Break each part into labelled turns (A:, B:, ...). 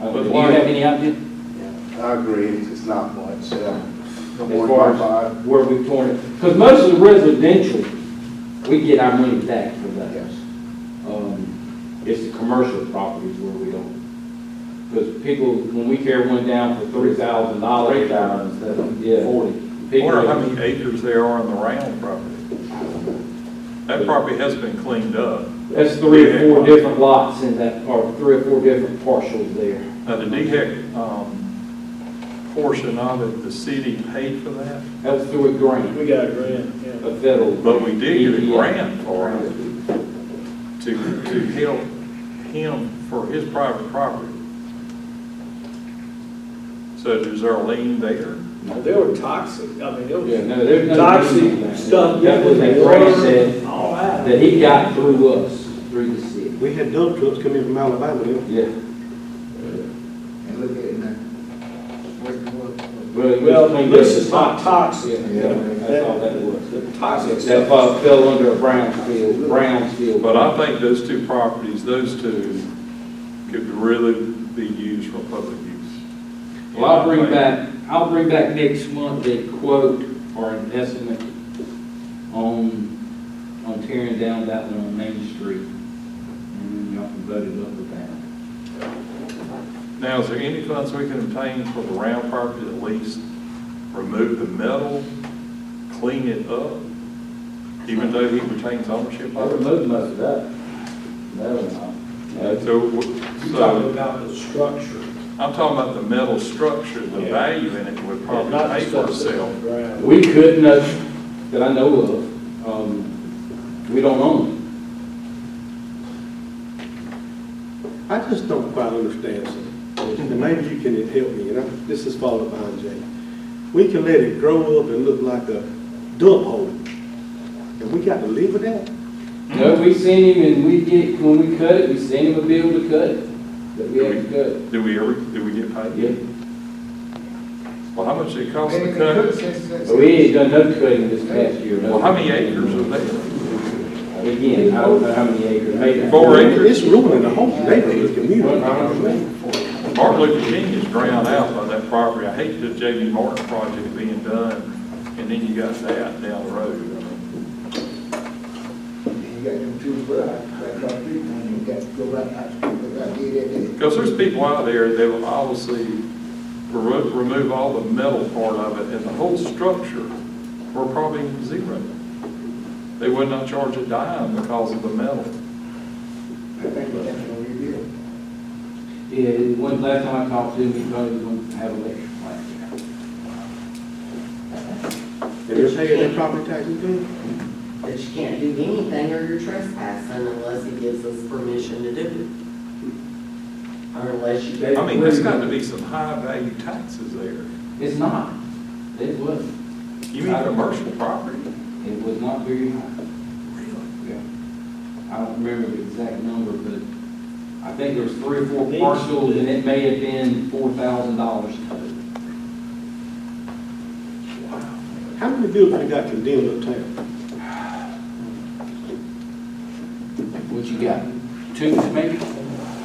A: Uh,
B: But
A: Do you
B: why-
A: have any idea
C: Yeah, I agree, it's it's not much, uh,
A: as far as where we've torn it? Because most of the residential, we get our money back for
C: Yes.
A: those. Um, It's the commercial properties where we don't. Because people, when we tear one down for three thousand dollars.
B: Three thousand instead of
A: Yeah.
B: forty.
A: people-
D: Wonder how many acres there are on the round property? That property has been cleaned up.
A: That's three or four different lots in that, or three or four different parcels there.
D: Now, the DHEC, um, portion of it, the city paid for that,
A: That's through a grant,
E: We got a grant, yeah.
A: a federal.
D: but we did get a
A: EPA.
D: grant for it to, to help him for his private property. So is there a lien there?
E: They were toxic, I mean, it
A: Yeah,
E: was
A: no, there's no.
E: toxic stuff.
A: That was a grant said,
E: All that.
A: that he got through us, through the city.
F: We had dump trucks coming from Alabama, they were
A: Yeah.
C: And look at it now.
E: Well, this is not toxic.
A: Yeah, that's all that was.
E: The toxic
A: That
E: stuff.
A: uh, fell under a brownfield, brownfield.
D: But I think those two properties, those two could really be used for public use.
A: Well, I'll bring back, I'll bring back next month a quote or an estimate on, on tearing down that one on Main Street. And then y'all can vote it up or down.
D: Now, is there any funds we can obtain for the round property to at least remove the metal, clean it up, even though he retains ownership
B: I
D: of it?
B: removed most of that. That was not.
D: Uh, So, w-
E: You talking
D: so
E: about the structure.
D: I'm talking about the metal structure, the
E: Yeah.
D: value in it would
E: Yeah, not the
D: probably pay for
E: stuff that's on
D: itself.
E: the ground.
A: Oh, We could not, that I know of, um, we don't own
F: I just don't quite understand something, and maybe you can help me, and I- this is followed by Jay. We can let it grow up and look like a dump hole, and we got to live with that?
A: it. No, we send him and we get, when we cut it, we send him a bill to cut it, that we have to cut.
D: Do we ever, do we get paid?
A: Yeah.
D: Well, how much did it cost to cut? it?
A: But Oh, we ain't done no cutting this past year. no.
D: Well, how many acres are there?
A: Again, I don't know how many acres, maybe.
D: Four acres?
F: It's ruining the whole neighborhood, community.
D: Martin Luther King is drowned out by that property. I hate the J.B. Martin project being done, and then you got that down the road. I mean,
C: You got them two brothers, like, on three, and you got to go right out, go right there, there, there.
D: Because there's people out there that will obviously remo- remove all the metal part of it, and the whole structure, we're probably zero. They would not charge a dime because of the metal.
C: I think we have to rebuild.
A: Yeah, one, last time I talked to him, he told me he was gonna have electric plant
F: And they're paying their property taxes too?
G: But you can't do anything or you're trespassing unless he gives us permission to do it. Or unless you
A: there.
D: I mean, there's got to be some high-value taxes there.
A: It's not, it wasn't,
D: You mean commercial property?
A: it was not very high. Yeah. I don't remember the exact number, but I think there was three or four parcels, and it may have been four thousand dollars total.
F: How many buildings got condemned uptown?
A: What you got, two maybe?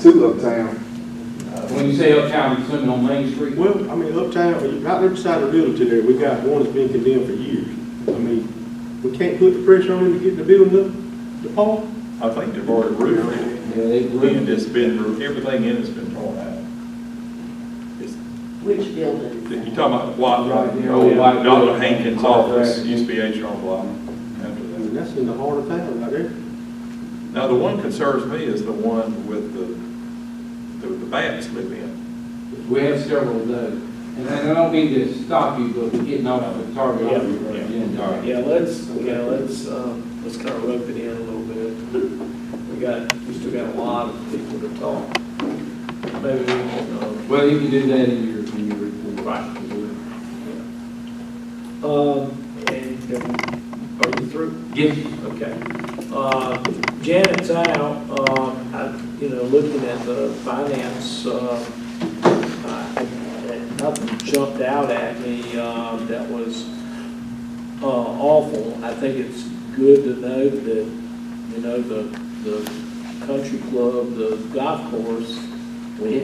C: Two uptown.
A: When you say uptown, you're swimming on Main Street?
F: Well, I mean, uptown, right there beside the realty there, we got one that's been condemned for years. I mean, we can't put the pressure on him to get the building up, the pole?
D: I think they've already roofed it,
A: Yeah, they
D: and
A: ruined it.
D: it's been, everything in it's been torn out. It's-
G: Which building?
D: You're talking about Oh, White,
A: Right there,
D: old
A: yeah.
D: Dr. Hankins' office,
A: Correct.
D: used to be H.R. Block after
F: I
D: that.
F: mean, that's in the heart of town right there.
D: Now, the one concerns me is the one with the, the- the bats live in.
A: We have several of those, and I don't mean to stop you, but we're getting off the target.
E: Yeah,
A: We're getting target.
E: Yeah, let's, yeah, let's, um, let's kind of rope it in a little bit. We got, we still got a lot of people to talk. Maybe we won't um, know.
A: Well, you can do that in your, in your report.
E: Right. Um, and, um, are you through?
A: Yes,
E: Okay. Uh, Janet's out, uh, I, you know, looking at the finance, uh, I- I- nothing jumped out at me, uh, that was, uh, awful. I think it's good to know that, you know, the, the country club, the golf course,